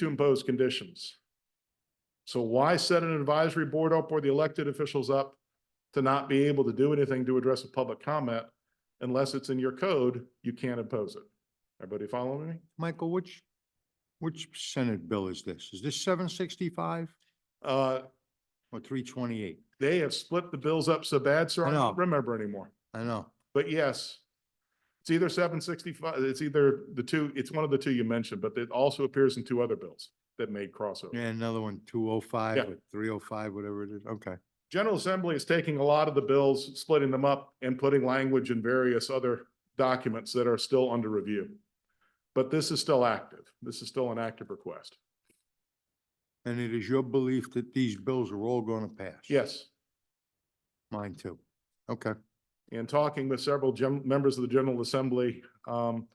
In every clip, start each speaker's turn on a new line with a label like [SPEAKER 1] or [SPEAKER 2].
[SPEAKER 1] to impose conditions. So why set an advisory board up or the elected officials up to not be able to do anything to address a public comment? Unless it's in your code, you can't impose it. Everybody following me?
[SPEAKER 2] Michael, which, which Senate bill is this? Is this seven sixty-five
[SPEAKER 1] Uh,
[SPEAKER 2] or three twenty-eight?
[SPEAKER 1] they have split the bills up so bad, sir, I
[SPEAKER 2] I know.
[SPEAKER 1] don't remember anymore.
[SPEAKER 2] I know.
[SPEAKER 1] But yes, it's either seven sixty-five, it's either the two, it's one of the two you mentioned, but it also appears in two other bills that made crossover.
[SPEAKER 2] Yeah, another one, two oh five
[SPEAKER 1] Yeah.
[SPEAKER 2] or three oh five, whatever it is. Okay.
[SPEAKER 1] General Assembly is taking a lot of the bills, splitting them up and putting language in various other documents that are still under review. But this is still active. This is still an active request.
[SPEAKER 2] And it is your belief that these bills are all going to pass?
[SPEAKER 1] Yes,
[SPEAKER 2] Mine too. Okay.
[SPEAKER 1] and talking with several gen- members of the General Assembly, um,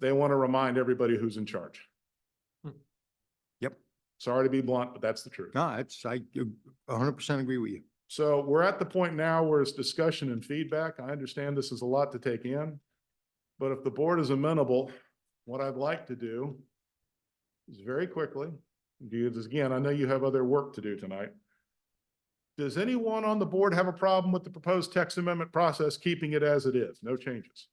[SPEAKER 1] they want to remind everybody who's in charge.
[SPEAKER 2] Yep.
[SPEAKER 1] Sorry to be blunt, but that's the truth.
[SPEAKER 2] No, it's, I uh, hundred percent agree with you.
[SPEAKER 1] So we're at the point now where it's discussion and feedback. I understand this is a lot to take in. But if the board is amenable, what I'd like to do is very quickly, do this again, I know you have other work to do tonight. Does anyone on the board have a problem with the proposed text amendment process, keeping it as it is? No changes?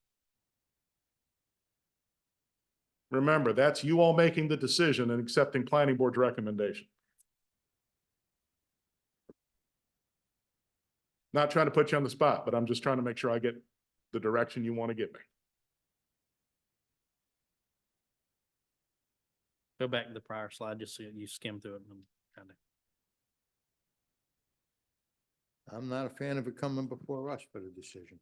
[SPEAKER 1] Remember, that's you all making the decision and accepting planning board's recommendation. Not trying to put you on the spot, but I'm just trying to make sure I get the direction you want to get me.
[SPEAKER 3] Go back to the prior slide, just so you skim through it and kind of.
[SPEAKER 2] I'm not a fan of it coming before us for the decision.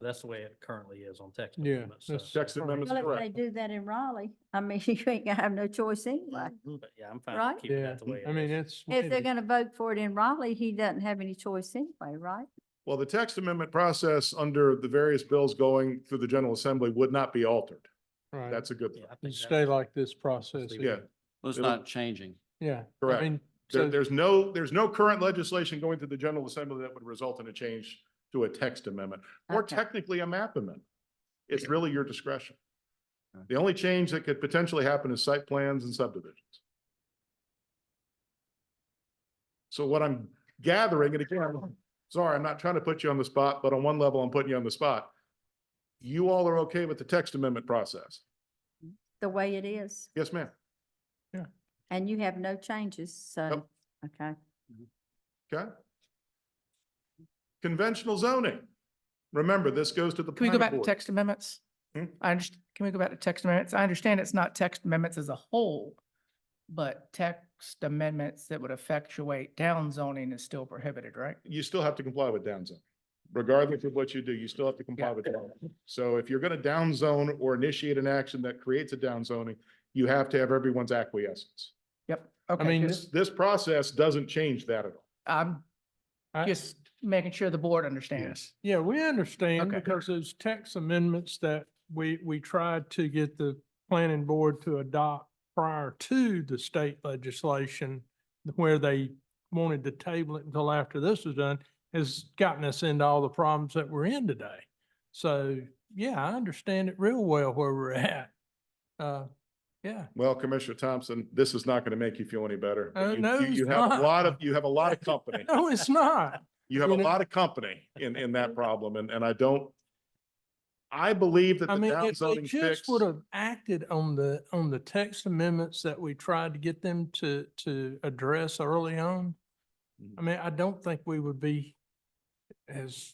[SPEAKER 3] That's the way it currently is on text.
[SPEAKER 4] Yeah,
[SPEAKER 3] amendments, so-
[SPEAKER 4] that's-
[SPEAKER 1] Text amendments,
[SPEAKER 5] Well, if they
[SPEAKER 1] correct.
[SPEAKER 5] do that in Raleigh, I mean, you ain't gonna have no choice anyway.
[SPEAKER 3] But yeah, I'm fine
[SPEAKER 5] Right?
[SPEAKER 3] with keeping that the way
[SPEAKER 4] I mean,
[SPEAKER 3] it is.
[SPEAKER 4] it's.
[SPEAKER 5] If they're gonna vote for it in Raleigh, he doesn't have any choice anyway, right?
[SPEAKER 1] Well, the text amendment process under the various bills going through the General Assembly would not be altered.
[SPEAKER 4] Right,
[SPEAKER 1] That's a good
[SPEAKER 3] Yeah,
[SPEAKER 1] thing.
[SPEAKER 3] I think
[SPEAKER 4] and
[SPEAKER 3] that-
[SPEAKER 4] stay like this process.
[SPEAKER 3] leave
[SPEAKER 1] Yeah,
[SPEAKER 4] is.
[SPEAKER 6] Well, it's
[SPEAKER 1] It would-
[SPEAKER 6] not changing.
[SPEAKER 4] Yeah. I
[SPEAKER 1] Correct.
[SPEAKER 4] mean,
[SPEAKER 1] there,
[SPEAKER 4] so-
[SPEAKER 1] there's no, there's no current legislation going through the General Assembly that would result in a change to a text amendment or
[SPEAKER 5] Okay.
[SPEAKER 1] technically a map amendment. It's really your discretion.
[SPEAKER 6] Okay.
[SPEAKER 1] The only change that could potentially happen is site plans and subdivisions. So what I'm gathering, and again, I'm sorry, I'm not trying to put you on the spot, but on one level, I'm putting you on the spot. You all are okay with the text amendment process?
[SPEAKER 5] The way it is,
[SPEAKER 1] Yes, ma'am.
[SPEAKER 5] and you have no changes, so,
[SPEAKER 1] Nope.
[SPEAKER 5] okay.
[SPEAKER 1] Okay. Conventional zoning. Remember, this goes to the.
[SPEAKER 7] Can we go
[SPEAKER 1] planning
[SPEAKER 7] back to
[SPEAKER 1] board.
[SPEAKER 7] text amendments?
[SPEAKER 1] Hmm?
[SPEAKER 7] I underst can we go back to text amendments? I understand it's not text amendments as a whole, but text amendments that would effectuate down zoning is still prohibited, right?
[SPEAKER 1] You still have to comply with down zone. Regardless of what you do, you still have to comply
[SPEAKER 7] Yeah.
[SPEAKER 1] with down. So if you're going to down zone or initiate an action that creates a down zoning, you have to have everyone's acquiescence.
[SPEAKER 7] Yep. Okay.
[SPEAKER 4] mean,
[SPEAKER 7] just-
[SPEAKER 1] This, this process doesn't change that at all.
[SPEAKER 7] I'm
[SPEAKER 4] I-
[SPEAKER 7] just making sure the board understands.
[SPEAKER 4] Yeah, we understand
[SPEAKER 7] Okay.
[SPEAKER 4] because those text amendments that we, we tried to get the planning board to adopt prior to the state legislation, where they wanted to table it until after this was done, has gotten us into all the problems that we're in today. So, yeah, I understand it real well where we're at. Uh, yeah,
[SPEAKER 1] Well, Commissioner Thompson, this is not going to make you feel any better. but
[SPEAKER 4] Oh,
[SPEAKER 7] Uh,
[SPEAKER 1] you-
[SPEAKER 4] no,
[SPEAKER 1] you- You
[SPEAKER 4] it's
[SPEAKER 1] have a
[SPEAKER 4] not.
[SPEAKER 1] lot of, you have a lot of company.
[SPEAKER 4] no, it's not.
[SPEAKER 1] You have a
[SPEAKER 4] You know-
[SPEAKER 1] lot of company in, in that problem and, and I don't. I believe that
[SPEAKER 4] I
[SPEAKER 1] the
[SPEAKER 4] mean,
[SPEAKER 1] down
[SPEAKER 4] if they
[SPEAKER 1] zoning fix.
[SPEAKER 4] just would have acted on the, on the text amendments that we tried to get them to, to address early on,
[SPEAKER 1] Mm-hmm.
[SPEAKER 4] I mean, I don't think we would be as,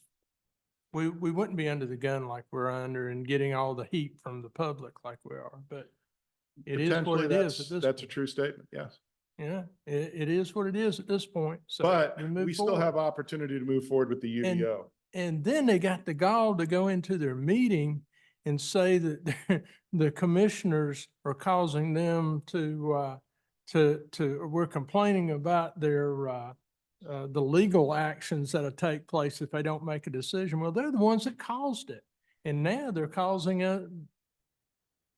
[SPEAKER 4] we, we wouldn't be under the gun like we're under and getting all the heat from the public like we are, but it is what
[SPEAKER 1] potentially
[SPEAKER 4] it
[SPEAKER 1] that's-
[SPEAKER 4] is at this.
[SPEAKER 1] That's a
[SPEAKER 4] point.
[SPEAKER 1] true statement, yes.
[SPEAKER 4] Yeah, it, it is what it is at this point, so.
[SPEAKER 1] But
[SPEAKER 4] move
[SPEAKER 1] we still
[SPEAKER 4] forward.
[SPEAKER 1] have opportunity to move forward with the E
[SPEAKER 4] And-
[SPEAKER 1] UDO.
[SPEAKER 4] And then they got the gall to go into their meeting and say that they're- the commissioners are causing them to, uh, to, to, we're complaining about their, uh, uh, the legal actions that'll take place if they don't make a decision. Well, they're the ones that caused it. And now they're causing, uh,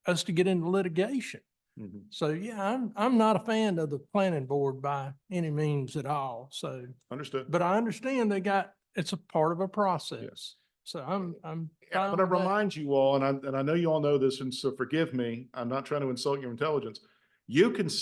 [SPEAKER 4] us to get into litigation.
[SPEAKER 1] Mhm.
[SPEAKER 4] So yeah, I'm, I'm not a fan of the planning board by any means at all. So
[SPEAKER 1] Understood.
[SPEAKER 4] but I understand they got, it's a part of a process. So I'm, I'm.
[SPEAKER 1] I'm going
[SPEAKER 4] fine
[SPEAKER 1] to
[SPEAKER 4] with that.
[SPEAKER 1] remind you all, and I, and I know you all know this, and so forgive me, I'm not trying to insult your intelligence. You can